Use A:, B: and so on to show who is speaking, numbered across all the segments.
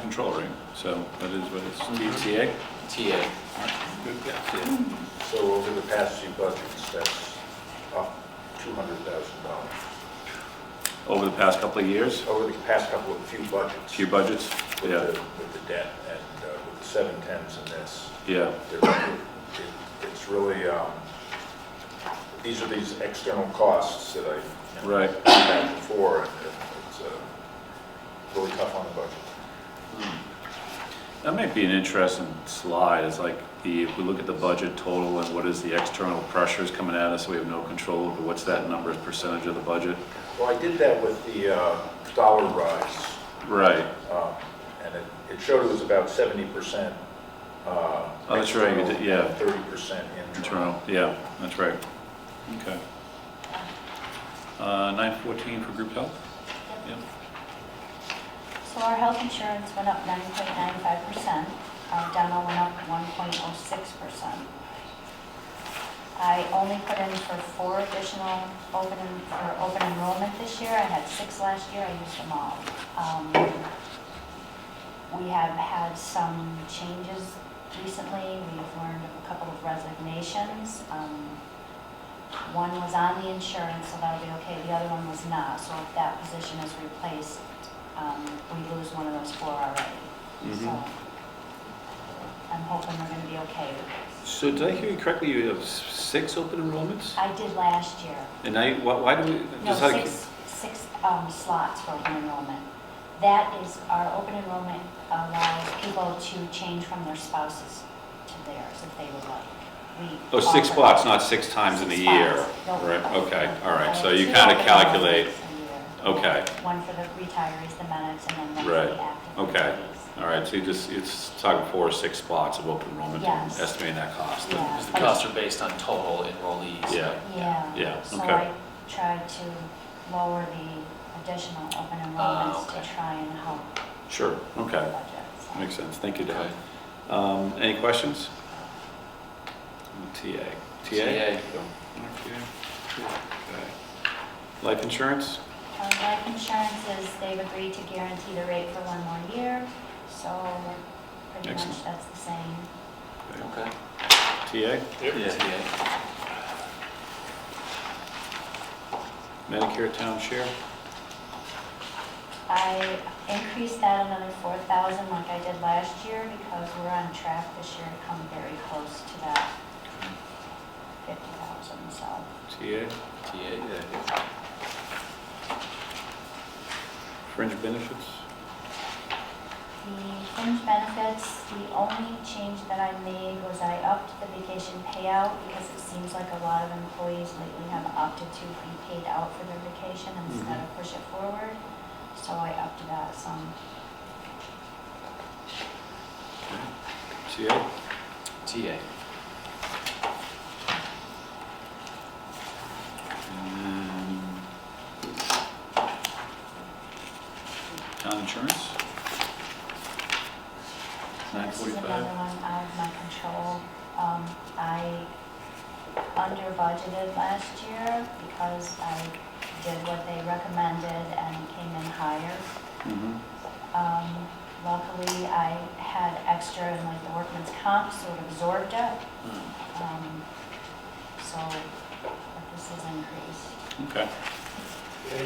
A: control room, so that is what it's, TTA?
B: TA.
C: So over the past few budgets, that's up $200,000.
A: Over the past couple of years,
C: Over the past couple of few budgets.
A: few budgets,
C: With
A: yeah,
C: the, with the debt and uh, with the seven tens and this,
A: yeah,
C: they're- it- it's really, um, these are these external costs that I. you know,
A: Right.
C: had Before, and it's uh, really tough on the budget.
A: that might be an interesting slide, it's like the, if we look at the budget total and what is the external pressures coming at us, we have no control over what's that number, percentage of the budget?
C: Well, I did that with the uh, dollar rise.
A: Right,
C: Um, And it, it showed it was about seventy percent. Oh,
A: Oh, that's right, you did- yeah.
C: Thirty percent internal.
A: internal, yeah, that's right, okay. Uh, nine fourteen for group health? Yeah.
D: So our health insurance went up 9.95%, our dental went up 1.06%. I only put in for four additional open, en- for open enrollment this year, I had six last year, I used them all. Um, We have had some changes recently, we've learned of a couple of resignations. Um, One was on the insurance, so that'll be okay, the other one was not, so if that position is replaced, um, we lose one of those four already. So
A: Mhm.
D: I'm hoping we're gonna be okay with this.
E: So did I hear you correctly, you have s- six open enrollments?
D: I did last year,
E: And now, you- why why do we?
D: No,
E: just how-
D: six, six um, slots for open enrollment. That is, our open enrollment allows people to change from their spouses to theirs if they would like.
E: Oh,
D: We
E: six
D: offer-
E: spots, not six times in a
D: six
E: year?
D: spots. No,
E: Right,
D: uh,
E: okay, all
D: uh,
E: right, so you
D: two
E: kind of
D: open
E: calculate,
D: enrollments a year.
E: okay,
D: One for the retirees, the medics, and then one for
E: Right,
D: the active.
E: okay.
D: employees.
E: All right, so you just, it's talking four or six spots of open enrollment, and
D: Yes.
E: estimating that cost.
D: Yeah.
B: Because the costs are based on total enrollees.
E: Yeah.
D: Yeah.
E: Yeah,
D: So
E: okay.
D: I tried to lower the additional open enrollments
B: okay.
D: to try and help
E: Sure,
D: the
E: Ah, okay,
D: budget. so.
E: makes sense, thank you,
B: Okay.
E: Deb. Um, Any questions? TA, TA?
B: TA.
E: Okay. Life insurance?
D: Um, Life insurance is, they've agreed to guarantee the rate for one more year, so pretty much
E: Excellent.
D: that's the same.
B: Okay.
E: TA?
B: TA.
E: Medicare town share?
D: I increased that another four thousand like I did last year because we're on track this year to come very close to that fifty thousand, so.
E: TA?
B: TA.
E: Fringe benefits?
D: The fringe benefits, the only change that I made was I upped the vacation payout because it seems like a lot of employees lately have opted to be paid out for their vacation instead of push it forward. So I upped that some.
E: TA?
B: TA.
E: And Town insurance? Nine
D: This is
E: forty-five.
D: another one out of my control. Um, I under budgeted last year because I did what they recommended and came in higher.
E: Mhm.
D: Um, Luckily, I had extra in like the workman's comp, so it absorbed it.
E: Hmm.
D: Um, So, but this is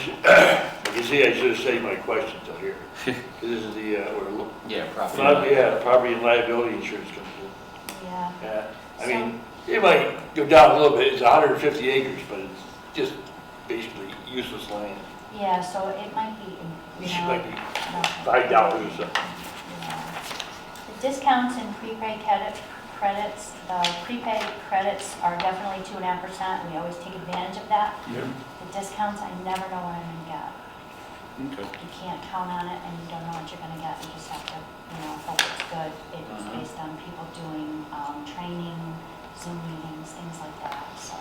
D: increased.
E: Okay.
F: You see, I should have saved my questions till here. 'Cause This is the, uh, where, lo-
B: Yeah, property.
F: not- yeah, property and liability insurance comes in.
D: Yeah,
F: Uh, I mean, it might go down a little bit, it's 150 acres, but it's just basically useless land.
D: yeah, so it might be, you
F: It
D: know.
F: might be
D: no.
F: $5 or something.
D: Yeah. The discounts and prepaid credit, credits, the prepaid credits are definitely two and a half percent. We always take advantage of that. The discounts, I never know what I'm gonna get.
E: Okay.
D: you can't count on it and you don't know what you're gonna get, you just have to, you know, hope it's good. It was
E: Uh-huh.
B: Mhm.
D: based on people doing, um, training, Zoom meetings, things like that, so.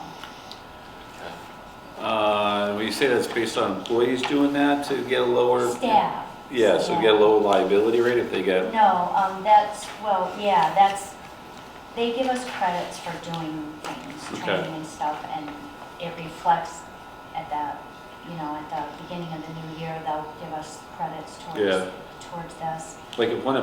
B: Okay.
E: Uh, When you say that's based on employees doing that to get a lower?
D: Staff.
E: Yeah, so
D: staff.
E: get a lower liability rate if they get,
D: No, um, that's, well, yeah, that's, they give us credits for doing things,
E: Okay.
D: training and stuff, and it reflects at the, you know, at the beginning of the new year, they'll give us credits
E: Yeah.
D: towards, towards this.
E: like if one